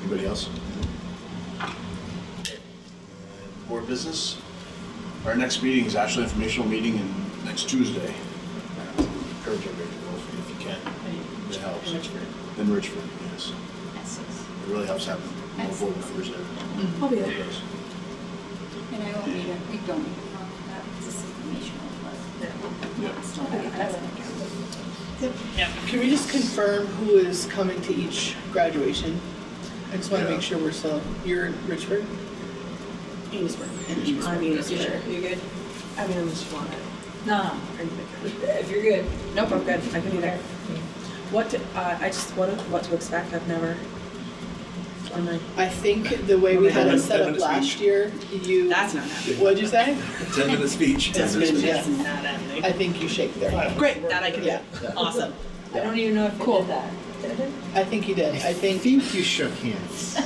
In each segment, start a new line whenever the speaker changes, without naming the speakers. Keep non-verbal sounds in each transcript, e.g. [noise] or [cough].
Anybody else? Board business? Our next meeting is actually an informational meeting in next Tuesday. Encourage everybody to go if- if you can. It helps. In Richford, yes. It really helps having more board members there.
I'll be there.
Yes.
And I won't need it, we don't need it, that was just informational, but.
Yep.
It's not that, that's not counted.
Yeah.
Can we just confirm who is coming to each graduation? I just want to
Yeah.
make sure we're still, you're in Richford?
Amesburg.
Amesburg.
I'm Amesburg.
You good?
I mean, I'm just wanted.
No, if you're good.
Nope, I'm good. I can be there. What, to- uh, I just, what, what to expect? I've never. I'm like,
I think the way we had it set up last year, you,
That's not happening.
what'd you say?
Ten minute speech. Ten minute speech.
Yes.
not happening.
I think you shake their hand.
Great, that I can
Yeah.
do. Awesome.
I don't even know if you
Cool.
did that. Did it?
I think you did. I think,
think you shook hands.
I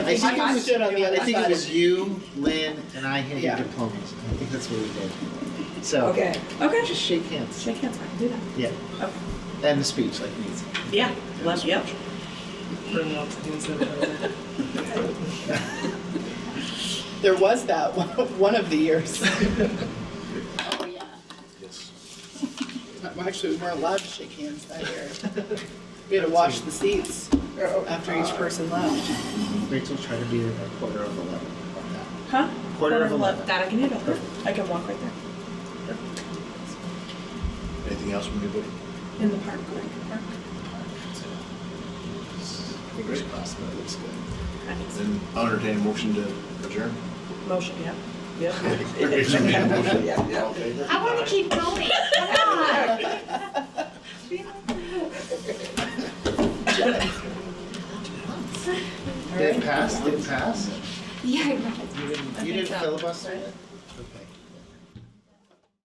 think
I
you stood on the other
I think it
side.
was you, Lynn, and I
Yeah.
handed diplomas. I think that's what we did. So.
Okay.
Okay.
Just shake hands.
Shake hands. I can do that.
Yeah.
Okay.
And the speech, like me.
Yeah. Love, yep.
There was that one, [laughs] one of the years.
Oh, yeah.
Yes.
Well, Actually, we weren't allowed to shake hands that year. We had to wash the seats after each person left.
Rachel tried to be a quarter of eleven. on that.
Huh?
Quarter of eleven.
That I can handle. Perfect. I can walk right there.
Anything else from anybody?
In the park, like, park.
Great.
That looks good.
Then I'll entertain a motion to adjourn.
Motion, yeah. Yep.
Rachel made a motion. All in favor?
I wanna keep going, come on.
Did it pass? Did it pass?
Yeah, I know.
You didn't, you didn't filibuster it? Okay.